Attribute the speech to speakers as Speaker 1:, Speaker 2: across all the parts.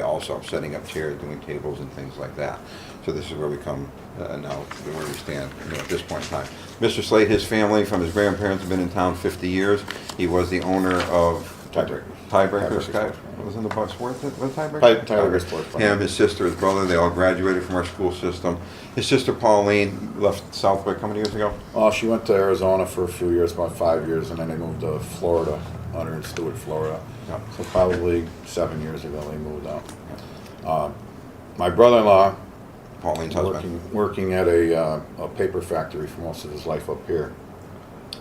Speaker 1: also setting up chairs, doing tables and things like that. So this is where we come uh, now, where we stand you know, at this point in time. Mr. Slade, his family from his grandparents have been in town 50 years. He was the owner of
Speaker 2: Tiebreaker.
Speaker 1: Tiebreaker
Speaker 2: Tiebreaker
Speaker 1: Sky-
Speaker 2: Sports
Speaker 1: wasn't the boss worth it? Was Tiebreaker?
Speaker 2: Ti- Tiebreaker Sports Bar.
Speaker 1: Him, his sister, his brother, they all graduated from our school system. His sister Pauline left Southwick how many years ago?
Speaker 2: Well, Oh, she went to Arizona for a few years, about five years, and then they moved to Florida, under in Stewart, Florida.
Speaker 1: Yeah.
Speaker 2: So probably seven years ago they moved out. Um, my brother-in-law,
Speaker 1: Pauline's husband.
Speaker 2: working, working at a, uh, a paper factory for most of his life up here,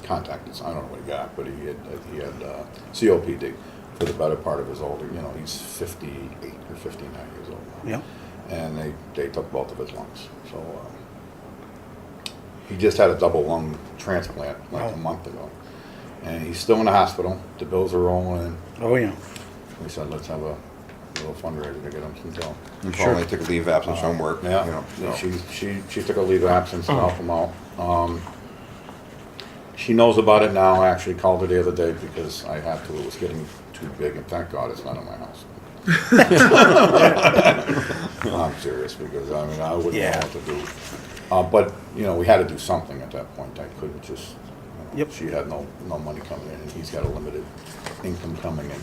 Speaker 2: contacted us. I don't know what he got, but he had he had uh, COPD for the better part of his older. You know, he's 58 or 59 years old now.
Speaker 3: Yeah.
Speaker 2: and they, they took both of his lungs. So uh, he just had a double lung transplant like
Speaker 3: Wow.
Speaker 2: a month ago, and he's still in the hospital. The bills are rolling.
Speaker 3: Oh, yeah.
Speaker 2: We said let's have a little fundraiser to get him some help.
Speaker 1: And
Speaker 3: Sure.
Speaker 1: Pauline took a leave of absence from work. you
Speaker 2: Yeah,
Speaker 1: know,
Speaker 2: yeah,
Speaker 1: so.
Speaker 2: she, she, she took a leave of absence to
Speaker 3: Oh.
Speaker 2: help him out. Um, she knows about it now, I actually called her the other day because I had to, it was getting too big, and thank God it's not in my house. I'm serious, because I mean, I wouldn't know
Speaker 3: Yeah.
Speaker 2: what to do. Uh, but, you know, we had to do something at that point, I couldn't just, you know,
Speaker 3: Yep.
Speaker 2: she had no, no money coming in, and he's got a limited income coming in.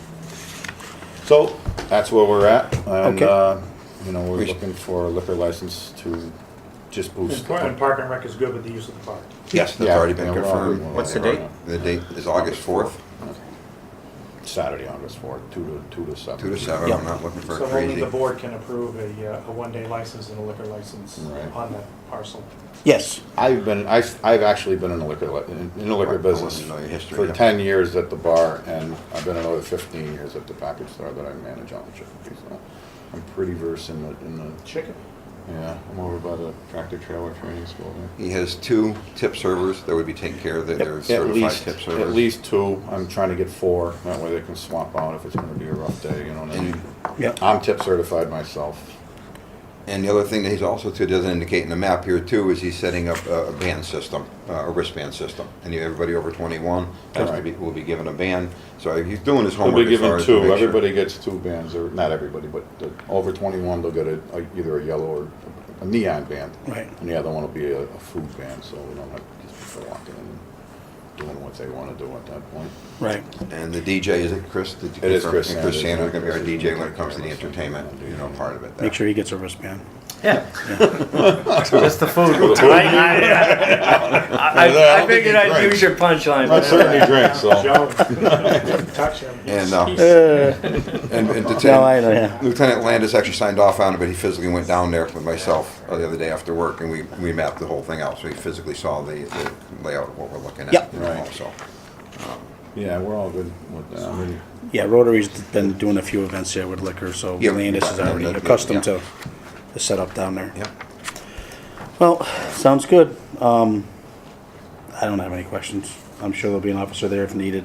Speaker 2: So, that's where we're at, and,
Speaker 3: Okay.
Speaker 2: uh, you know, we're
Speaker 1: We sh-
Speaker 2: looking for a liquor license to just boost.
Speaker 4: And
Speaker 2: the-
Speaker 4: Park and Park and Rec is good with the use of the park.
Speaker 1: Yes, that's
Speaker 2: Yeah,
Speaker 1: already been
Speaker 2: yeah, we're already-
Speaker 1: confirmed.
Speaker 2: What's the
Speaker 1: Yeah.
Speaker 2: date?
Speaker 1: The date is August 4th,
Speaker 2: Saturday, August fourth, two to, two to seven.
Speaker 1: 2 to 7.
Speaker 3: Yeah.
Speaker 1: I'm not looking for
Speaker 4: So only
Speaker 1: crazy.
Speaker 4: the board can approve a, uh, a one-day license and a liquor license
Speaker 2: Right.
Speaker 4: on that parcel.
Speaker 3: Yes.
Speaker 2: I've been, I've, I've actually been in the liquor, li- in in the liquor
Speaker 1: Right, I
Speaker 2: business
Speaker 1: wanted to know your history,
Speaker 2: for
Speaker 1: yeah.
Speaker 2: ten years at the bar, and I've been another fifteen years at the package store that I manage on the Chippewa, so I'm pretty versed in the, in the,
Speaker 4: Chicken.
Speaker 2: yeah, I'm over by the tractor trailer training school there.
Speaker 1: He has two tip servers that would be taking care of it. They're
Speaker 2: At
Speaker 1: certified
Speaker 2: least,
Speaker 1: tip
Speaker 2: at
Speaker 1: servers.
Speaker 2: least two, I'm trying to get four, that way they can swap out if it's gonna be a rough day, you know what I mean?
Speaker 1: And
Speaker 3: Yeah.
Speaker 2: I'm tip certified myself,
Speaker 1: And the other thing that he's also too doesn't indicate in the map here too is he's setting up a a band system, uh, a wristband system. And you- everybody over 21 has to
Speaker 2: Right.
Speaker 1: be, will be given a band. So he's doing his
Speaker 2: They'll be
Speaker 1: homework as far
Speaker 2: given
Speaker 1: as to
Speaker 2: two,
Speaker 1: make sure.
Speaker 2: everybody gets two bands, or, not everybody, but the, over twenty-one, they'll get a, a- either a yellow or a neon band.
Speaker 3: Right.
Speaker 2: And the other one will be a, a food band, so we don't have these people walking in and doing what they wanna do at that point.
Speaker 3: Right.
Speaker 1: And the DJ, is it Chris? Did you
Speaker 2: It is
Speaker 1: confirm?
Speaker 2: Chris
Speaker 1: And Chris
Speaker 2: Sanders.
Speaker 1: Sanders is going to be our
Speaker 2: Chris
Speaker 1: DJ
Speaker 2: is
Speaker 1: when
Speaker 2: gonna
Speaker 1: it comes to the
Speaker 2: take care of us.
Speaker 1: entertainment, you know, part of it. there.
Speaker 3: Make sure he gets a wristband.
Speaker 5: Yeah. Just the food. I, I, I, I, I figured I'd use your punchline.
Speaker 2: I certainly drink, so.
Speaker 4: Joe, touch him.
Speaker 1: And, uh, and and to
Speaker 3: No,
Speaker 1: tell-
Speaker 3: I don't, yeah.
Speaker 1: Lieutenant Landis actually signed off on it, but he physically went down there with myself uh, the other day after work, and we, we mapped the whole thing out, so he physically saw the, the layout of what we're looking at.
Speaker 3: Yep.
Speaker 1: you know,
Speaker 2: Right.
Speaker 1: So,
Speaker 2: Yeah, we're all good with that, I mean,
Speaker 3: Yeah, Rotary's been doing a few events here with liquor, so
Speaker 1: Yeah,
Speaker 3: Landis is
Speaker 1: yeah,
Speaker 3: already
Speaker 1: yeah,
Speaker 3: accustomed
Speaker 1: yeah.
Speaker 3: to the setup down there.
Speaker 1: yeah.
Speaker 3: Well, sounds good. Um, I don't have any questions. I'm sure there'll be an officer there if needed,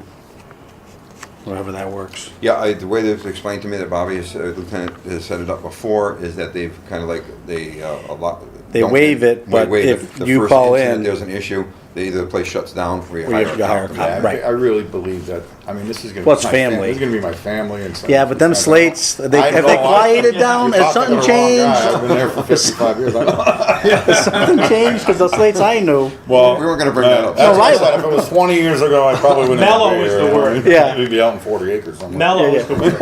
Speaker 3: wherever that works.
Speaker 1: Yeah, I, the way they've explained to me that Bobby has, uh, Lieutenant has set it up before is that they've kind of like, they, uh, a lot.
Speaker 3: They
Speaker 1: don't-
Speaker 3: waive it,
Speaker 1: wa-
Speaker 3: but
Speaker 1: waive it.
Speaker 3: if
Speaker 1: The
Speaker 3: you
Speaker 1: first
Speaker 3: call
Speaker 1: incident
Speaker 3: in-
Speaker 1: There's an issue, they, either the place shuts down for your
Speaker 3: Or you have to hire a
Speaker 1: hire.
Speaker 3: cop.
Speaker 2: yeah, I,
Speaker 3: Right.
Speaker 2: I really believe that, I mean, this is gonna. be
Speaker 3: Well, it's
Speaker 2: my fam-
Speaker 3: family.
Speaker 2: This is gonna be my family and. some-
Speaker 3: Yeah, but them
Speaker 2: I know.
Speaker 3: slates, they,
Speaker 2: I
Speaker 3: have they
Speaker 2: know, I-
Speaker 3: quieted down?
Speaker 2: You're
Speaker 3: Has
Speaker 2: talking
Speaker 3: something
Speaker 2: to the wrong guy.
Speaker 3: changed?
Speaker 2: I've been there for fifty-five years, I know.
Speaker 3: Has something changed? Because the slates I knew,
Speaker 2: Well,
Speaker 1: Oh, We weren't gonna bring that up.
Speaker 2: That's
Speaker 3: No,
Speaker 2: what I
Speaker 3: I-
Speaker 2: said. If it was 20 years ago, I probably wouldn't.
Speaker 4: Mellow
Speaker 2: be
Speaker 4: is
Speaker 2: here.
Speaker 4: the word.
Speaker 3: Yeah.
Speaker 2: We'd be out in 40 acres somewhere.
Speaker 4: Mellow
Speaker 3: Yeah,
Speaker 4: is the word.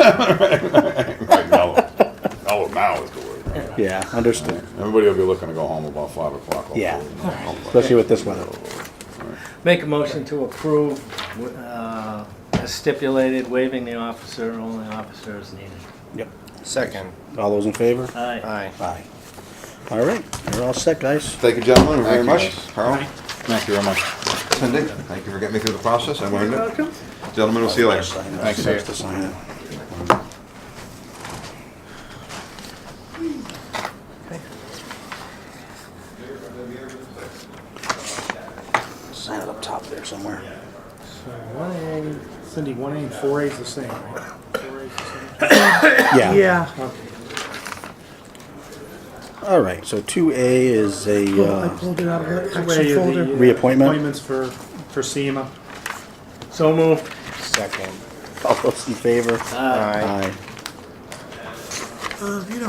Speaker 2: Right, mellow. mellow now is the word. right?
Speaker 3: yeah, understood,
Speaker 2: Everybody will be looking to go home about 5 o'clock. hopefully.
Speaker 3: Yeah. especially with this weather.
Speaker 5: Make a motion to approve, uh, as stipulated, waiving the officer, only officer is needed.
Speaker 3: Yep.
Speaker 6: Second.
Speaker 3: All those in favor?
Speaker 5: Aye.
Speaker 6: Aye.
Speaker 3: Aye. All right, you're all set, guys.
Speaker 1: Thank you, gentlemen, very
Speaker 2: Thank you,
Speaker 1: much.
Speaker 2: guys.
Speaker 1: Carl,
Speaker 2: Thank you very much.
Speaker 1: Cindy, thank you for getting me through the process, I learned it. Gentlemen, we'll see you later.
Speaker 3: Thanks,
Speaker 2: sir.
Speaker 3: To sign it. Sign it up top there somewhere.
Speaker 4: One A, Cindy, one A and four A is the same, right? Four A is the same.
Speaker 3: Yeah,
Speaker 4: Okay.
Speaker 3: all right, so two A is a,
Speaker 7: Well, I
Speaker 3: uh,
Speaker 7: pulled it out of the
Speaker 4: Two A are
Speaker 7: action
Speaker 4: the,
Speaker 7: folder.
Speaker 4: uh,
Speaker 3: Reappointment?
Speaker 4: Appointments for, for SEMA.
Speaker 5: So moved.
Speaker 6: Second.
Speaker 3: all those in favor?
Speaker 6: Aye.
Speaker 3: Aye.
Speaker 6: Uh, you know,